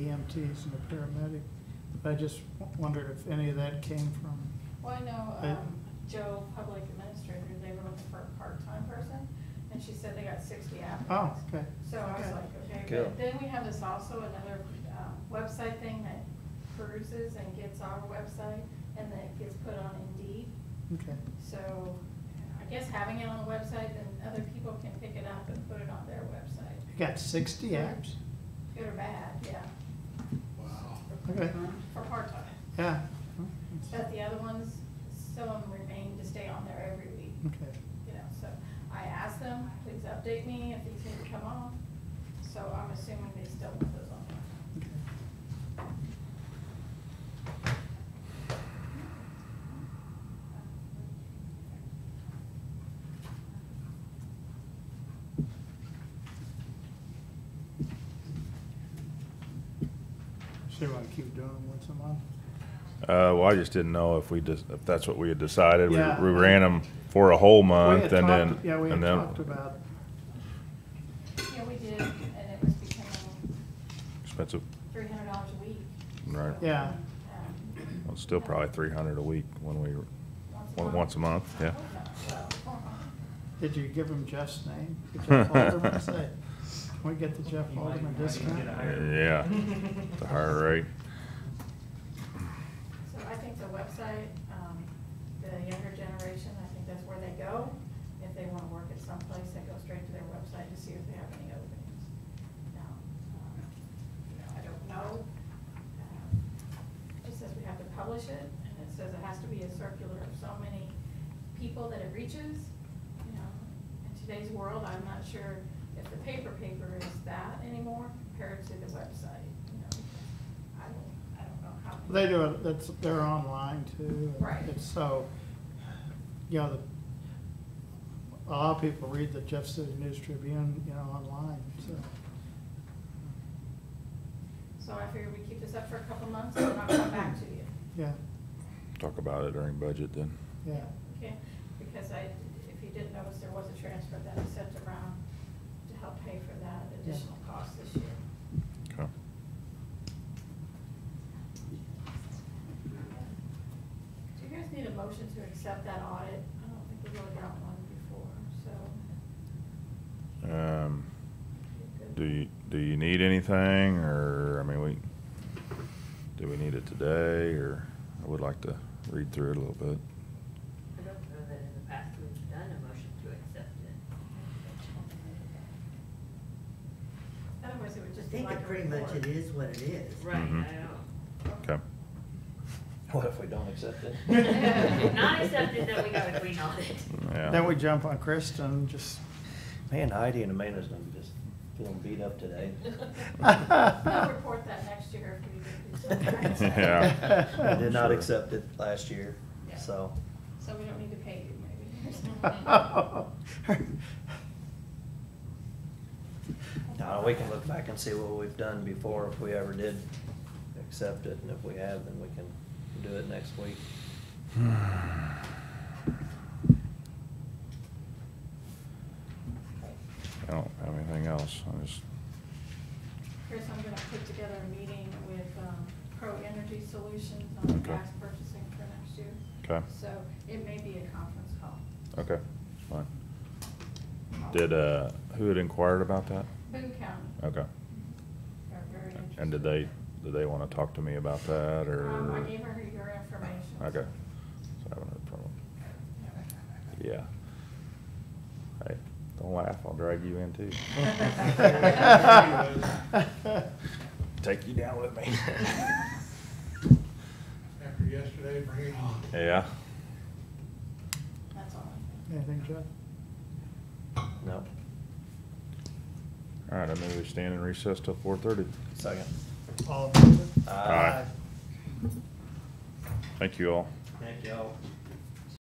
E EMTs and the paramedic. I just w- wondered if any of that came from, Well, I know, I- um, Joe, public administrator, they were looking for a part-time person, and she said they got sixty oh, applicants. okay. So I was Okay. like, okay, Cool. but then we have this also another, um, website thing that peruses and gets our website, and then it gets put on Indeed. Okay, So I guess having it on the website, then other people can pick it up and put it on their website. you got sixty apps? Good or bad, yeah, Wow. Okay, for part-time. yeah. But the other ones, some of them remain to stay on there every week. Okay, you know, so I asked them, please update me if these need to come off, so I'm assuming they still want those on there. okay. So you wanna keep doing them once a month? Uh, well, I just didn't know if we just, if that's what we had decided. We, Yeah. we ran them for a whole We month had and then, talked- Yeah, we had and talked then about, Yeah, we did, and it was becoming expensive, three hundred dollars a week. right? So, Yeah. um, Well, it's still probably three hundred a week when we, one- once a month, yeah. Oh, no, so, did you give him Jeff's name? Did Jeff Alderman say, can we get the Jeff You might- Alderman might even discount? get a higher- Yeah, the higher rate. So I think the website, um, the younger generation, I think that's where they go. If they wanna work at some place, they go straight to their website to see if they have any openings. Now, um, you know, I don't know. Um, It says we have to publish it, and it says it has to be a circular of so many people that it reaches, you know. In today's world, I'm not sure if the paper paper is that anymore compared to the website, you know. I don't, I don't know how. many- They do it, that's, they're online too. Right. It's so, you know, the, a lot of people read the Jeff City News Tribune, you know, online, so. So I figured we keep this up for a couple months and then I'll come back to you, Yeah, Talk about it during budget then. yeah, okay? Because I, if you didn't notice, there was a transfer that I sent around to help pay for that additional cost this year. Okay. Do you guys need a motion to accept that audit? I don't think we really got one before, so. Um, you're good. do you, do you need anything or, I mean, we, do we need it today or I would like to read through it a little bit. I don't know that in the past we've done a motion to accept it. Otherwise, it would I just be think like a it pretty much report. it is what it is. Right, Mhm. I know. Okay. What if we don't accept it? If not accepted, then we got a clean audit. Yeah. then we jump on Kristen, just, Man, Heidi and Amanda's gonna be just feeling beat up today. I'll report that next year if we do. do something. Yeah. I did not Sure. accept it last year, Yeah. so. So we don't need to pay you, maybe. Now, we can look back and see what we've done before, if we ever did accept it, and if we have, then we can do it next week. I don't have anything else. I just, Chris, I'm gonna put together a meeting with, um, Pro Energy Solutions on Okay. gas purchasing for next year. okay, So it may be a conference call. okay, it's fine. Did, uh, who had inquired about that? Boone County, Okay. they're very interested. And did they, did they wanna talk to me about that or? Um, I gave her your information. Okay. So I haven't heard from them. Yeah. Hey, don't laugh, I'll drag you in too. Take you down with me. After yesterday, bring it on. Yeah, That's all. I think. Anything, Jeff? No, all right, I move we stand in recess till four thirty. second. All in favor? Aye. Thank you all. Thank y'all.